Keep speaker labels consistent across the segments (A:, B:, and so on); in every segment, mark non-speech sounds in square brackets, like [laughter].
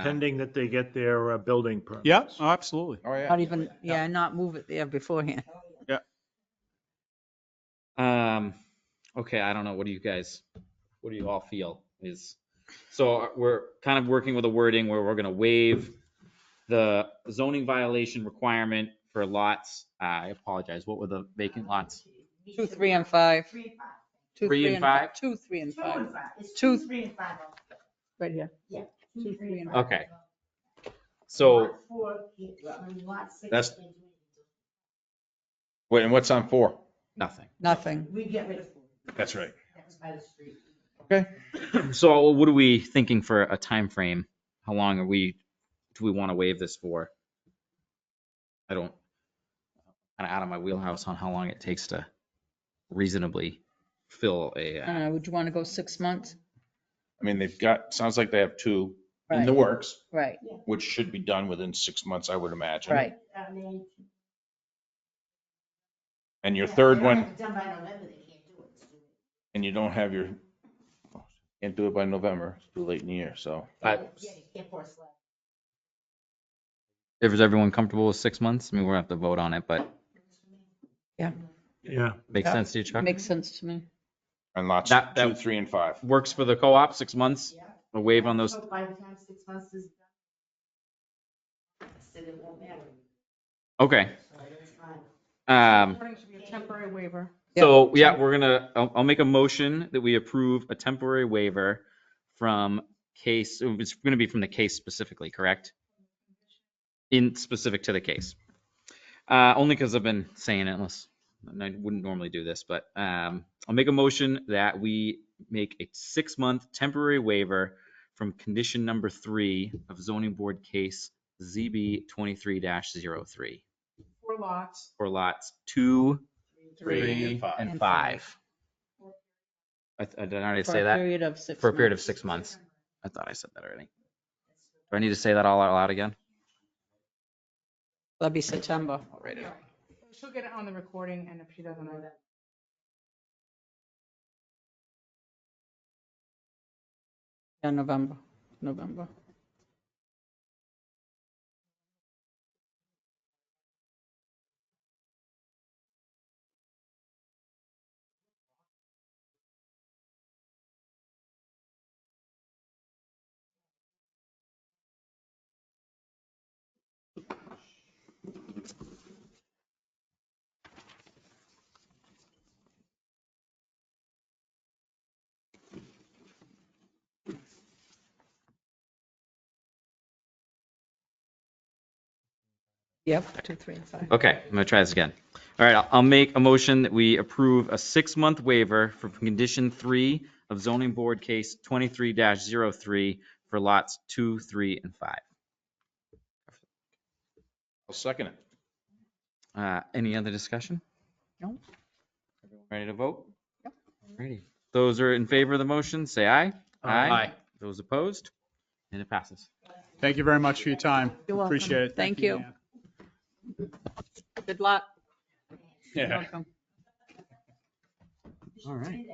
A: pending that they get their uh, building permits.
B: Yeah, oh, absolutely.
C: Oh, yeah.
D: Not even, yeah, not move it there beforehand. [laughs]
E: Um, okay, I don't know. What do you guys, what do you all feel is? So we're kind of working with a wording where we're gonna waive the zoning violation requirement for lots. I apologize. What were the vacant lots?
D: Two, three, and five.
F: Three and five.
D: Two,
E: Three and
D: fi-
E: five?
D: Two, three, and
F: Two and
D: five,
F: five. It's
D: Two-
F: two, three and five.
D: right here.
F: Two, three and five.
E: Okay. So
F: Lot four, lot six.
C: That's- Wait, and what's on four?
E: nothing.
D: Nothing.
F: We get rid of four.
C: That's right.
F: That was by the street.
E: So what are we thinking for a time frame? How long are we, do we want to waive this for? I don't, I'm out of my wheelhouse on how long it takes to reasonably fill a. uh,
D: I don't know, would you want to go six months?
C: I mean, they've got, sounds like they have two in
D: Right,
C: the works,
D: right,
C: which should be done within six months, I would imagine.
D: right.
F: I mean,
C: And your
F: yeah,
C: third
F: they don't
C: one,
F: have it Done by November, they can't do it.
C: and you don't have your, can't do it by November, it's too late in the year, so.
E: I-
F: Yeah, you can't force that.
E: If is everyone comfortable with six months, I mean, we'll have to vote on it, but
A: Yeah.
E: makes
D: Yeah.
E: sense to you, Chuck?
D: Makes sense to me.
C: And lots
E: That- that-
C: two, three, and five.
E: Works for the co-op, six months,
F: Yeah.
E: a waive on those.
F: So By the time six months is done. Then it won't matter.
E: Okay.
F: So it's fine.
E: Um,
D: should be a temporary waiver.
E: so yeah, we're gonna, I'll, I'll make a motion that we approve a temporary waiver from case, oh, it's gonna be from the case specifically, correct? In specific to the case. Uh, only because I've been saying it unless, and I wouldn't normally do this, but, um, I'll make a motion that we make a six-month temporary waiver from condition number three of zoning board case ZB twenty-three 3
G: Four lots.
E: for lots two,
C: Three
E: three,
C: and five.
E: and
D: And
E: five. I, I did I already say
D: For a
E: that?
D: period of six.
E: For a period of
D: months.
E: six months. I thought I said that already. Do I need to say that all out loud again?
D: That'd be September.
G: She'll get it on the recording and if she doesn't know that.
D: Yeah, November, November. Yep, two, three, and five.
E: Okay, I'm gonna try this again. All right, I'll- I'll make a motion that we approve a six-month waiver for condition three of zoning board case twenty-three 3 for lots two, three, and five.
C: I'll second it.
E: Uh, any other discussion?
D: No.
E: Everyone Ready to vote? Yep. Ready. Those are in favor of the motion, say aye.
B: Aye.
E: Those opposed? And it passes.
B: Thank you very much for your time.
D: You're welcome.
B: Appreciate it.
D: Thank you.
B: Nan.
D: Good luck.
B: Yeah.
D: Welcome.
E: All right.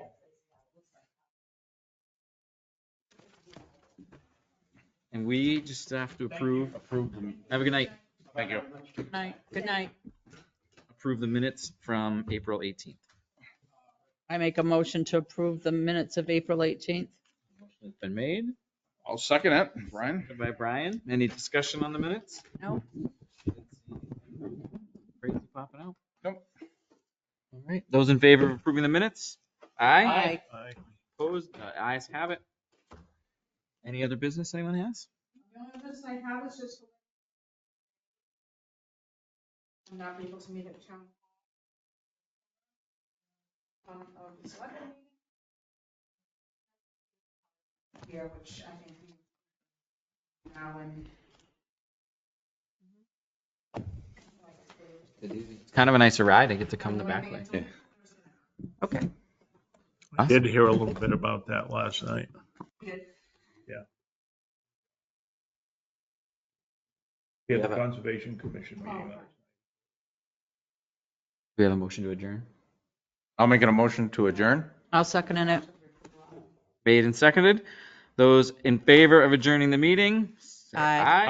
E: And we just have to approve,
C: Approved them.
E: have a good night,
C: Thank you.
D: Good Night, good night.
E: approve the minutes from April 18th.
D: I make a motion to approve the minutes of April 18th.
E: It's Been made
C: I'll second it, Brian.
E: by Brian. Any discussion on the minutes?
D: No.
E: Crazy popping out.
C: Nope.
E: All right, those in favor of approving the minutes? Aye.
D: Aye.
E: Opposed, Uh, ayes have it. Any other business anyone has?
G: The only business I have is just. I'm not be able to meet at the town. Um, of the select meeting. Here, which I think. we- Now and.
E: It's kind of a nicer ride. I get to come the back way.
G: Thursday.
E: Okay.
A: I Did hear a little bit about that last night.
G: Did.
A: Yeah. Yeah,
E: Yeah,
A: the
E: but-
A: Conservation Commission meeting.
D: Oh.
E: We have a motion to adjourn.
C: I'll make a motion to adjourn.
D: I'll second in it.
E: Made and seconded. Those in favor of adjourning the meeting, say
D: Aye.
E: Aye.